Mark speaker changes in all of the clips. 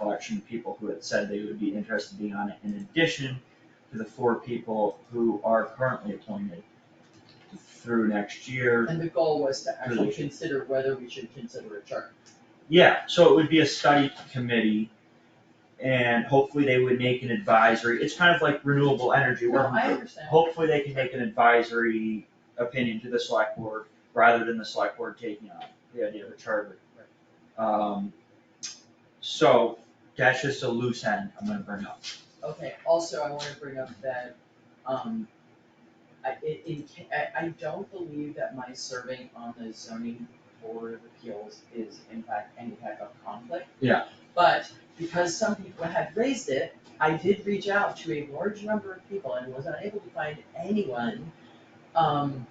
Speaker 1: election people who had said they would be interested in being on it, in addition to the four people who are currently appointed through next year.
Speaker 2: And the goal was to actually
Speaker 1: Really?
Speaker 2: consider whether we should consider a charter.
Speaker 1: Yeah, so it would be a study committee, and hopefully they would make an advisory, it's kind of like renewable energy, where
Speaker 2: No, I understand.
Speaker 1: hopefully they can make an advisory opinion to the select board, rather than the select board taking on the idea of a charter. Um, so, that's just a loose end I'm gonna bring up.
Speaker 2: Okay, also, I wanna bring up that, um, I, it, in, ca- I, I don't believe that my serving on the zoning board of appeals is in fact any type of conflict.
Speaker 1: Yeah.
Speaker 2: But because some people had raised it, I did reach out to a large number of people and was unable to find anyone, um,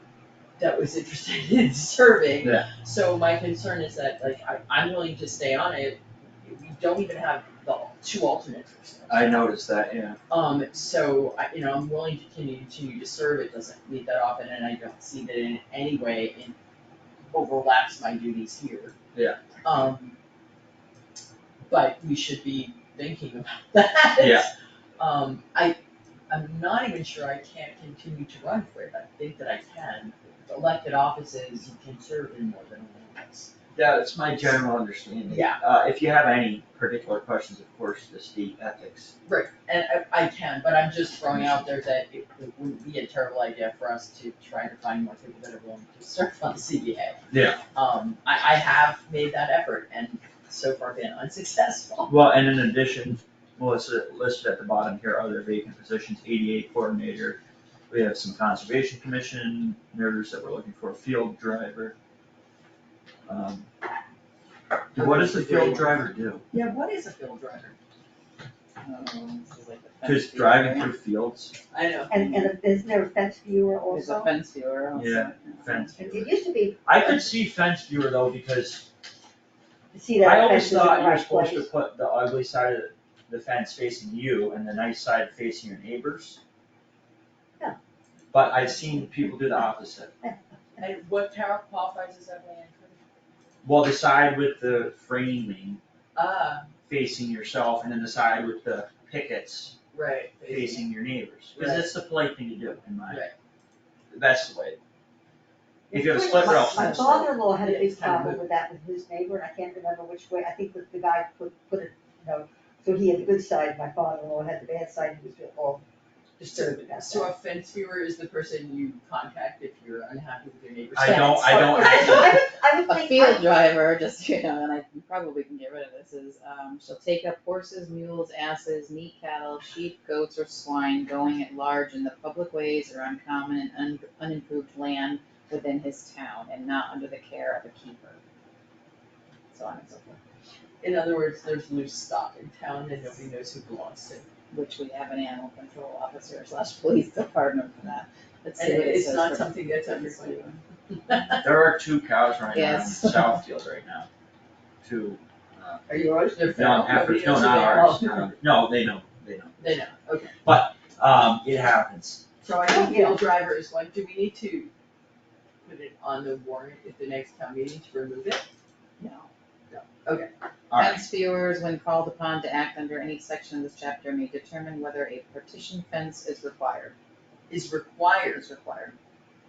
Speaker 2: that was interested in serving.
Speaker 1: Yeah.
Speaker 2: So my concern is that, like, I, I'm willing to stay on it, we don't even have the two alternates or something.
Speaker 1: I noticed that, yeah.
Speaker 2: Um, so, I, you know, I'm willing to continue, continue to serve, it doesn't meet that often, and I don't see that in any way in overlaps my duties here.
Speaker 1: Yeah.
Speaker 2: Um, but we should be thinking about that.
Speaker 1: Yeah.
Speaker 2: Um, I, I'm not even sure I can't continue to run for it, I think that I can. Elected offices, you can serve in more than one office.
Speaker 1: Yeah, that's my general understanding.
Speaker 2: Yeah.
Speaker 1: Uh, if you have any particular questions, of course, this the ethics
Speaker 2: Right, and I, I can, but I'm just throwing out there that it it wouldn't be a terrible idea for us to try to find more people that are willing to serve on the CBA.
Speaker 1: Yeah.
Speaker 2: Um, I, I have made that effort and so far been unsuccessful.
Speaker 1: Well, and in addition, Melissa listed at the bottom here, other vacant positions, ADA coordinator. We have some conservation commission members that we're looking for, field driver. Um, What does the field driver do?
Speaker 2: Yeah, what is a field driver?
Speaker 1: Um, Just driving through fields,
Speaker 2: I know.
Speaker 3: And, and isn't there a fence viewer
Speaker 4: There's a
Speaker 3: also?
Speaker 4: fence viewer also.
Speaker 1: Yeah. fence
Speaker 3: It
Speaker 1: viewer.
Speaker 3: used to be,
Speaker 1: I could see fence viewer though, because
Speaker 3: see
Speaker 1: I
Speaker 3: that
Speaker 1: always
Speaker 3: fence is in the
Speaker 1: thought you were
Speaker 3: right
Speaker 1: supposed to
Speaker 3: place.
Speaker 1: put the ugly side of the fence facing you and the nice side facing your neighbors.
Speaker 3: Yeah.
Speaker 1: But I've seen people do the opposite.
Speaker 2: And what tower qualifies as that land?
Speaker 1: Well, the side with the framing
Speaker 2: Ah,
Speaker 1: facing yourself, and then the side with the pickets
Speaker 2: right.
Speaker 1: facing your neighbors, because that's the polite thing to do, in my.
Speaker 2: Right.
Speaker 1: That's the way. If you have a split
Speaker 3: My-
Speaker 1: rail
Speaker 3: My
Speaker 1: fence, though,
Speaker 3: father-in-law had a
Speaker 2: It's
Speaker 3: big
Speaker 2: kind of
Speaker 3: problem with that with his neighbor, and I can't remember which way, I think that the guy put, put it, you know, so he had the good side, my father-in-law had the bad side, he was all disturbed about
Speaker 2: So
Speaker 3: that.
Speaker 2: a fence viewer is the person you contact if you're unhappy with your neighbor's
Speaker 1: I don't- I don't-
Speaker 3: So I would, I would
Speaker 4: A
Speaker 3: think,
Speaker 4: field
Speaker 3: I-
Speaker 4: driver, just, you know, and I probably can get rid of this, is, um, shall take up horses, mules, asses, meat cattle, sheep, goats, or swine going at large in the public ways or on common and un- unimproved land within his town and not under the care of a keeper. So on and so forth,
Speaker 2: In other words, there's loose stock in town and nobody knows who belongs to it.
Speaker 4: which we have an animal control officer slash police department for that. Let's see
Speaker 2: And
Speaker 4: what it
Speaker 2: it's
Speaker 4: says
Speaker 2: not
Speaker 4: for-
Speaker 2: something that's under
Speaker 4: Fence viewer.
Speaker 1: there are two cows running around in
Speaker 4: Yes.
Speaker 1: Southfield right now. Two, uh,
Speaker 2: Are yours? They're
Speaker 1: no,
Speaker 2: feral,
Speaker 1: heifers,
Speaker 2: nobody
Speaker 1: no,
Speaker 2: knows who
Speaker 1: not
Speaker 2: they are.
Speaker 1: ours,
Speaker 3: Oh.
Speaker 1: no, no, they know, they know.
Speaker 2: They know, okay.
Speaker 1: Um, it happens,
Speaker 2: So I
Speaker 4: Oh,
Speaker 2: think field driver is one, do we need to put it on the warrant at the next town meeting to remove it?
Speaker 4: No.
Speaker 1: alright,
Speaker 4: Fence viewers, when called upon to act under any section of this chapter, may determine whether a partition fence is required,
Speaker 2: Is required.
Speaker 4: is required.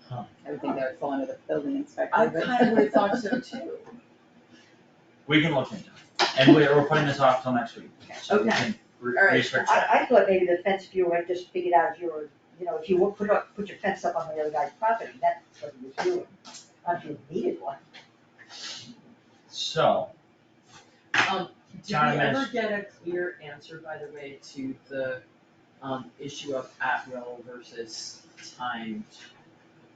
Speaker 1: Huh.
Speaker 4: I would think that would fall under the building inspector,
Speaker 2: I
Speaker 4: but-
Speaker 2: kind of would have thought so too.
Speaker 1: we can look into it, and we're, we're putting this off till next week, so we
Speaker 2: Okay.
Speaker 1: can re-
Speaker 2: Alright.
Speaker 1: research that.
Speaker 3: I, I thought maybe the fence viewer had just figured out if you were, you know, if you would put up, put your fence up on the other guy's property, that's what he was doing. Not if you needed one.
Speaker 1: So,
Speaker 2: Um, did
Speaker 1: Town
Speaker 2: we ever
Speaker 1: adminis-
Speaker 2: get a clear answer, by the way, to the, um, issue of at-will versus timed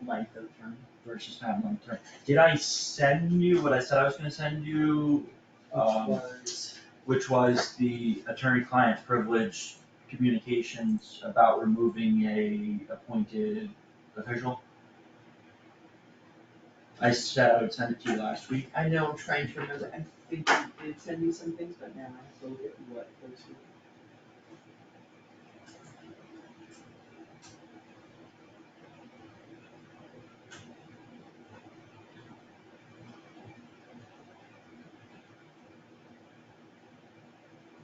Speaker 2: length of term?
Speaker 1: versus time long term. Did I send you what I said I was gonna send you?
Speaker 2: Which
Speaker 1: Um,
Speaker 2: was,
Speaker 1: which was the attorney-client privilege communications about removing a appointed official? I said I would send it to you last week.
Speaker 2: I know, I'm trying to remember, I think you did send me some things, but now I have to look at what those were.